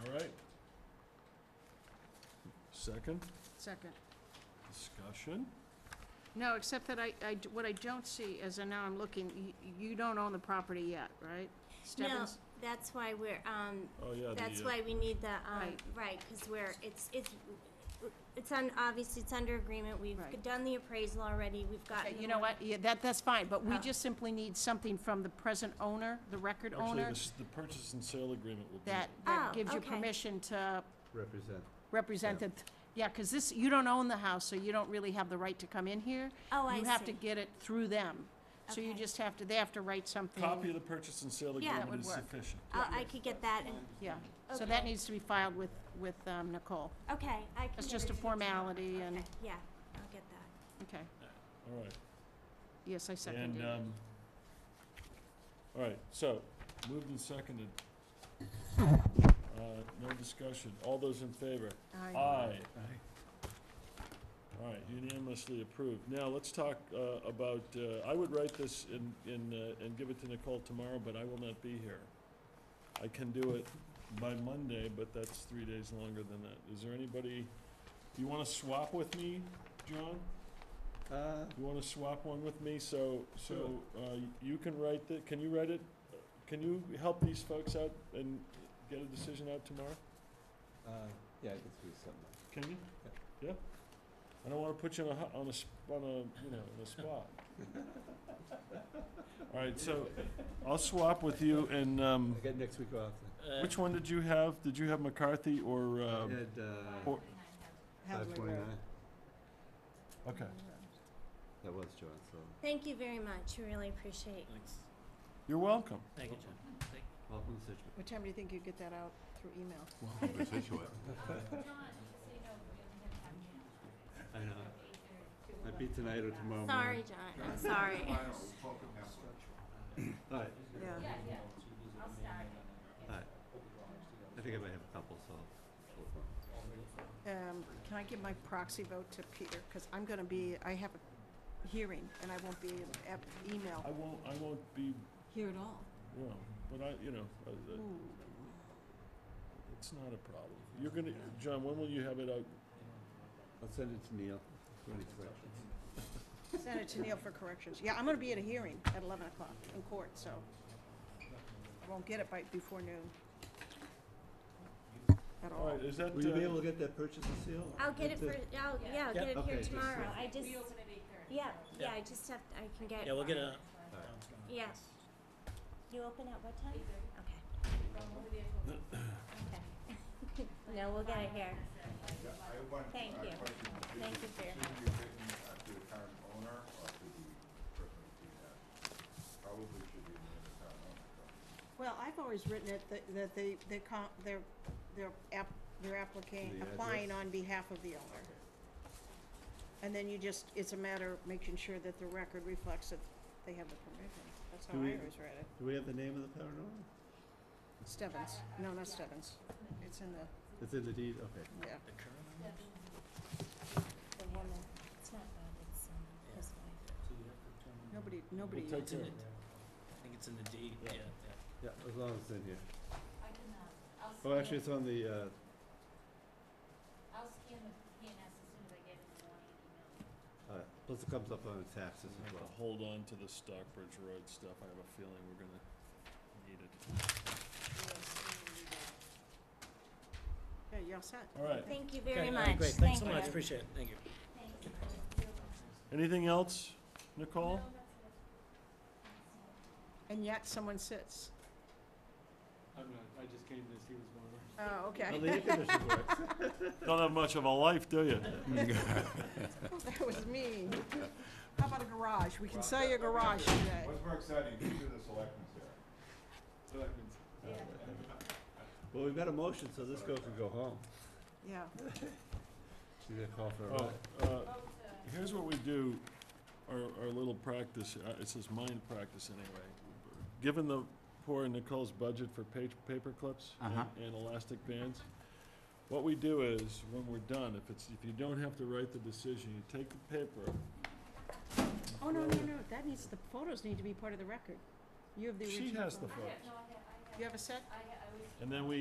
All right. Second, Second. discussion? No, except that I, I d- what I don't see is, and now I'm looking, you, you don't own the property yet, right? No, Stebbins? that's why we're, um, Oh, yeah. the, that's uh, why we need the, um, Right. right, because we're, it's, it's, it's on, obviously, it's under agreement. Right. We've done the appraisal already. We've Okay, gotten. Uh, You know what, yeah, that, that's fine, but we Oh. just simply need something from the present owner, the record Actually, owner, this- the purchase and sale agreement will be. that, that Oh, gives you okay. permission to represent. represent it. Yeah, because this, you don't own the house, so you don't really have the right to come in here. Oh, I You have to see. get it through them. So you Okay. just have to, they have to write something. Copy of the purchase and sale Yeah. That agreement would is work. sufficient. I, I could get that. and- Yeah, so that Okay. needs to be filed with, with um, Nicole. Okay, I can. It's get just a it. formality and, Okay, Yeah, I'll get that. okay, All right. yes, I seconded And, it. um, all right, so, moved and seconded. Uh, no discussion. All those in favor? Aye. Aye. All right, unanimously approved. Now, let's talk uh, about, uh, I would write this in, in, uh, and give it to Nicole tomorrow, but I will not be here. I can do it by Monday, but that's three days longer than that. Is there anybody, do you want to swap with me, John? Uh, You want to swap one with me? So, so uh, you can write the, can you write it? Can you help these folks out and get a decision out tomorrow? uh, yeah, I could do something. Can you? Yeah? I don't want to put you on a, hot- on a, sp- on a, you know, on a spot. All right, so I'll swap with you and, um, I got next week off. then. which one did you have? Did you have McCarthy or, I um, had, uh, or, five twenty-nine. okay. That was John, so, Thank you very much. We Really appreciate. Thanks. You're welcome. Thank you, John. Thank- welcome to Situate. What time do you think you get that out through email? I know. Might be tonight or tomorrow morning. Sorry, John. I'm sorry. All right, Yeah. all right. I think I might have a couple, so. Um, Can I give my proxy vote to Peter? Because I'm going to be, I have a hearing, and I won't be at I email. won't, I won't be, Here at all? you know, but I, you know, I- I- it's not a problem. You're gonna, John, when will you have it out? I'll send it to Neil for any corrections. Send it to Neil for corrections. Yeah, I'm going to be at a hearing at 11 o'clock in court, so I won't get it by, before noon. At All all. right, is that, Will you be uh, able to get that purchase and seal? I'll get it for, That's I'll, yeah, I'll get it Okay, here just- tomorrow. I just. Yeah, yeah, I just have, I can get. Yeah, we'll get a, Yeah. You open at what time? Okay. Okay. No, we'll get it here. Yeah, I want Thank a you. question. Is Thank it- you for your should it be written, uh, to the current owner or to the person who did that? Probably should be written to the current owner. though. Well, I've always written it that- that they, they con- they're, they're app- they're applicant, The address. applying on behalf of the owner. And then you just, it's a matter of making sure that the record reflects that they have the permission. That's how Do I we- always read it. Do we have the name of the paranormal? Stebbins, no, not Stebbins. It's in the, It's in the deed, okay. yeah. the current, The woman, it's not Bob, it's, um, his wife. Nobody, nobody. We'll take else. it's in it. I think it's in the deed, yeah, yeah. Yeah, as long as it's in here. Oh, actually, it's on the, uh, I'll scan the PNS as soon as I get it in the morning email. all right. uh, plus it comes up on the taxes as I'll well. hold on to the Stockbridge Road stuff, I have a feeling we're gonna need it. Yeah, you're all set. All right, Thank you very Okay, much. Great, thanks so Thank much, you. appreciate it, thank you. Thank you. No, anything else, Nicole? that's it. That's it. And yet someone sits. I'm not, I just came to see what's going on. Oh, okay. Well, the air conditioning works. Don't have much of a life, do you? That was mean. How about a garage? We can sell you a garage today. What's more exciting, these are the selectmen's here. So that means Well, we've got a motion, so this girl can go home. Yeah. She's gonna call for a Oh, ride. uh, Here's what we do, our, our little practice, uh, it's this mind practice anyway. Given the poor Nicole's budget for page, paper clips and and elastic bands, what we do is, when we're done, if it's, if you don't have to write the decision, you take the paper, Oh, no, no, no, that needs, the photos need to be part of the record. You have the she original. has the photo. photos, No, I have, I have, You have a set? I have, I was and then we